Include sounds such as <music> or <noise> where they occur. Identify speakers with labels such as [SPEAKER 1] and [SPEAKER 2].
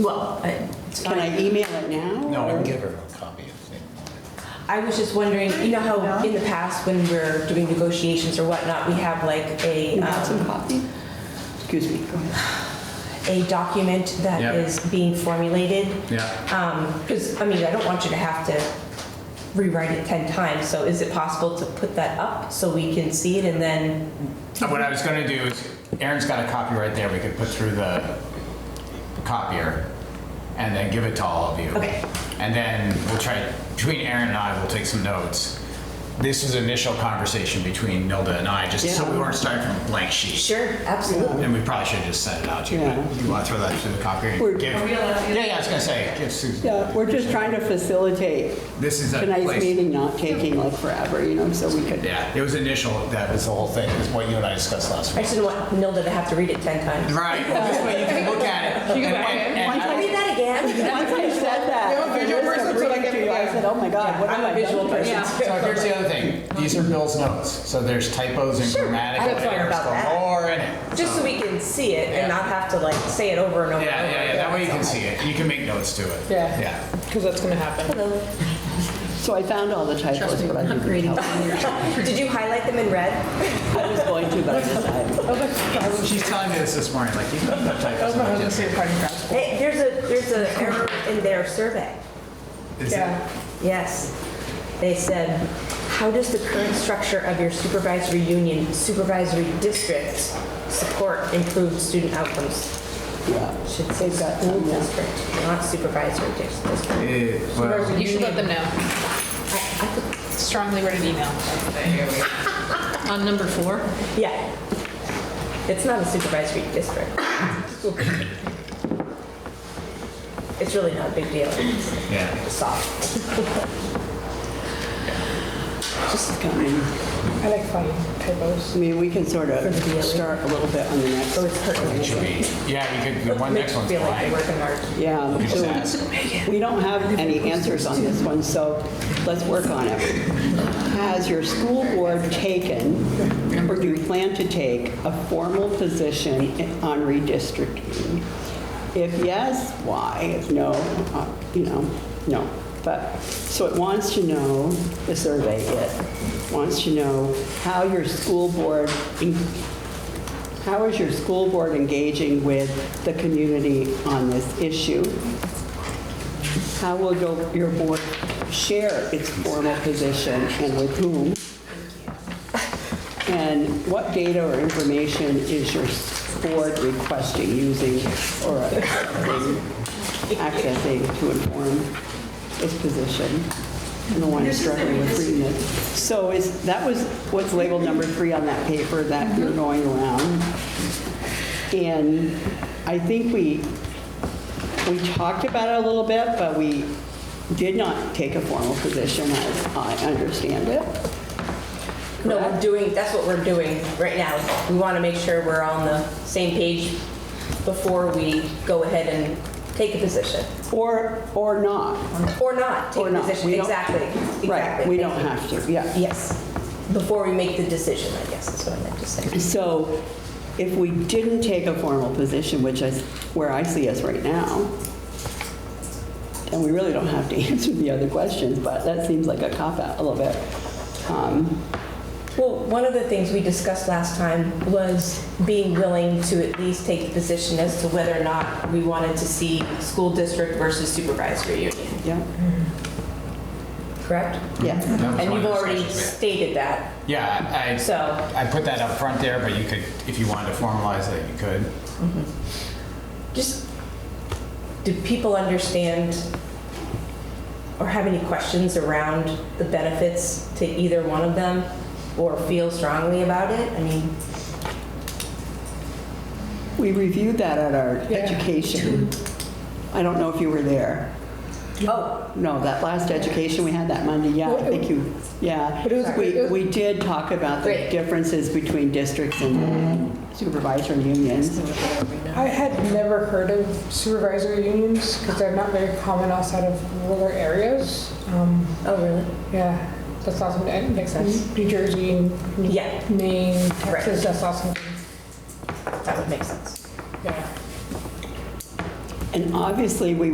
[SPEAKER 1] Well, I- it's
[SPEAKER 2] Can I
[SPEAKER 1] fine.
[SPEAKER 2] email it now?
[SPEAKER 3] No, I
[SPEAKER 2] or-
[SPEAKER 3] can give her a copy if they
[SPEAKER 1] I was just wondering, you know how in the past when we're doing negotiations or whatnot, we have like a,
[SPEAKER 2] You want some
[SPEAKER 1] um,
[SPEAKER 2] coffee? Excuse me, go ahead.
[SPEAKER 1] a document
[SPEAKER 3] Yeah.
[SPEAKER 1] that is being formulated?
[SPEAKER 3] Yeah.
[SPEAKER 1] Because, I mean, I don't want you to have to rewrite it 10 times, so is it possible to put that up so we can see it and then?
[SPEAKER 3] What I was gonna do is, Erin's got a copy right there, we could put through the copier and then give it to all of you.
[SPEAKER 1] Okay.
[SPEAKER 3] And then we'll try, between Erin and I, we'll take some notes. This was initial conversation between Nilda and I, just so we weren't starting from a blank sheet.
[SPEAKER 1] Sure, absolutely.
[SPEAKER 3] And we probably should have just sent it out to you, but
[SPEAKER 2] Yeah.
[SPEAKER 3] you wanna throw that through the copier?
[SPEAKER 2] We're-
[SPEAKER 3] Give-
[SPEAKER 4] Are we allowed to do
[SPEAKER 3] Yeah, yeah, I was gonna say, give Susan,
[SPEAKER 2] Yeah, we're just trying to facilitate
[SPEAKER 3] this is a place.
[SPEAKER 2] tonight's meeting not taking like forever, you know, so we could.
[SPEAKER 3] Yeah, it was initial, that was the whole thing, is what you and I discussed last
[SPEAKER 1] I
[SPEAKER 3] week.
[SPEAKER 1] just didn't want Nilda to have to read it 10 times.
[SPEAKER 3] Right, well, this way you can look at it. and- and- and-
[SPEAKER 2] Once I-
[SPEAKER 1] Read that again.
[SPEAKER 2] Once I said that.
[SPEAKER 4] You're a visual
[SPEAKER 2] I noticed
[SPEAKER 4] person,
[SPEAKER 2] I'm
[SPEAKER 4] so
[SPEAKER 2] reading
[SPEAKER 4] like,
[SPEAKER 2] to you, I
[SPEAKER 4] yeah.
[SPEAKER 2] said, oh my God, what am I?
[SPEAKER 1] I'm a visual
[SPEAKER 2] doing?"
[SPEAKER 1] person.
[SPEAKER 3] So here's the other thing, these are Bill's notes, so there's typos and grammatical
[SPEAKER 1] I don't care
[SPEAKER 3] errors
[SPEAKER 1] about that.
[SPEAKER 3] galore in it.
[SPEAKER 1] <laughs> Just so we can see it
[SPEAKER 3] Yeah.
[SPEAKER 1] and not have to like say it over and over.
[SPEAKER 3] Yeah, yeah, yeah, that way you can see it, you can make notes to it.
[SPEAKER 4] Yeah.
[SPEAKER 3] Yeah.
[SPEAKER 4] Because that's going to happen.
[SPEAKER 1] Hello.
[SPEAKER 2] So I found all the typos, but I didn't
[SPEAKER 1] <laughs>
[SPEAKER 2] help.
[SPEAKER 1] Did you highlight them in red?
[SPEAKER 2] I was going to, but I decided.
[SPEAKER 3] She's telling me this this morning, like, you don't have typos.
[SPEAKER 4] my
[SPEAKER 3] in
[SPEAKER 4] husband's
[SPEAKER 3] it.
[SPEAKER 4] favorite part of grad school.
[SPEAKER 1] Hey, there's a, there's an error in their survey.
[SPEAKER 3] Is it-
[SPEAKER 1] Yes. They said, how does the current structure of your supervisory union, supervisory districts support improved student outcomes?
[SPEAKER 2] Yeah.
[SPEAKER 1] Should say school district, not supervisory dis- district.
[SPEAKER 3] eh, well,
[SPEAKER 4] You should let them know.
[SPEAKER 1] I- I could-
[SPEAKER 4] Strongly wrote an email. On number four?
[SPEAKER 1] Yeah. It's not a supervisory district. It's really not a big deal. It's
[SPEAKER 3] Yeah.
[SPEAKER 1] soft.
[SPEAKER 2] Just coming.
[SPEAKER 4] I like finding typos.
[SPEAKER 2] I mean, we can sort of start a little bit on the next.
[SPEAKER 1] So it's hurting.
[SPEAKER 3] It should be, yeah, you could, the one next one's
[SPEAKER 1] Feel like they're
[SPEAKER 3] blank.
[SPEAKER 1] working hard.
[SPEAKER 2] Yeah.
[SPEAKER 3] You just
[SPEAKER 2] so
[SPEAKER 3] ask.
[SPEAKER 2] We don't have any answers on this one, so let's work on it. Has your school board taken, or do you plan to take, a formal position on redistricting? If yes, why? If no, uh, you know, no. But, so it wants to know, the survey, it wants to know how your school board en- how is your school board engaging with the community on this issue? How will your- your board share its formal position and with whom? And what data or information is your board requesting, using, or uh, accessing to inform its position? I'm the one struggling with reading it. So is, that was what's labeled number three on that paper that you're going around. And I think we, we talked about it a little bit, but we did not take a formal position, as I understand it.
[SPEAKER 1] No, we're doing, that's what we're doing right now. We want to make sure we're on the same page before we go ahead and take a position.
[SPEAKER 2] Or, or not.
[SPEAKER 1] Or not, take
[SPEAKER 2] Or
[SPEAKER 1] a
[SPEAKER 2] not.
[SPEAKER 1] position,
[SPEAKER 2] We don't-
[SPEAKER 1] exactly,
[SPEAKER 2] Right,
[SPEAKER 1] exactly.
[SPEAKER 2] we don't have to, yeah.
[SPEAKER 1] Yes, before we make the decision, I guess, is what I meant to say.
[SPEAKER 2] So if we didn't take a formal position, which is where I see us right now, and we really don't have to <laughs> answer the other questions, but that seems like a cop-out a little bit. Um,
[SPEAKER 1] Well, one of the things we discussed last time was being willing to at least take the position as to whether or not we wanted to see school district versus supervisory union,
[SPEAKER 2] Yeah,
[SPEAKER 1] correct?
[SPEAKER 2] yeah.
[SPEAKER 3] That
[SPEAKER 1] And
[SPEAKER 3] was one of
[SPEAKER 1] you've
[SPEAKER 3] the
[SPEAKER 1] already
[SPEAKER 3] discussions
[SPEAKER 1] stated that,
[SPEAKER 3] we had. Yeah, I.
[SPEAKER 1] so.
[SPEAKER 3] I put that up front there, but you could, if you wanted to formalize it, you could.
[SPEAKER 1] Just, do people understand or have any questions around the benefits to either one of them or feel strongly about it? I mean,
[SPEAKER 2] We reviewed that at our education. I don't know if you were there.
[SPEAKER 1] oh,
[SPEAKER 2] No, that last education we had that Monday, yeah, I think you, yeah.
[SPEAKER 4] But it was-
[SPEAKER 2] We, we did talk about the
[SPEAKER 1] Great.
[SPEAKER 2] differences between districts and
[SPEAKER 4] Mm-hmm.
[SPEAKER 2] supervisory unions.
[SPEAKER 5] I had never heard of supervisory unions because they're not very common outside of rural areas. Um,
[SPEAKER 1] oh, really?
[SPEAKER 5] yeah, that's awesome. It makes sense. New Jersey, New-
[SPEAKER 1] Mm-hmm. Yeah.
[SPEAKER 5] Maine,
[SPEAKER 1] Right.
[SPEAKER 5] Texas, that's awesome.
[SPEAKER 1] That would make sense.
[SPEAKER 5] Yeah.
[SPEAKER 2] And obviously, we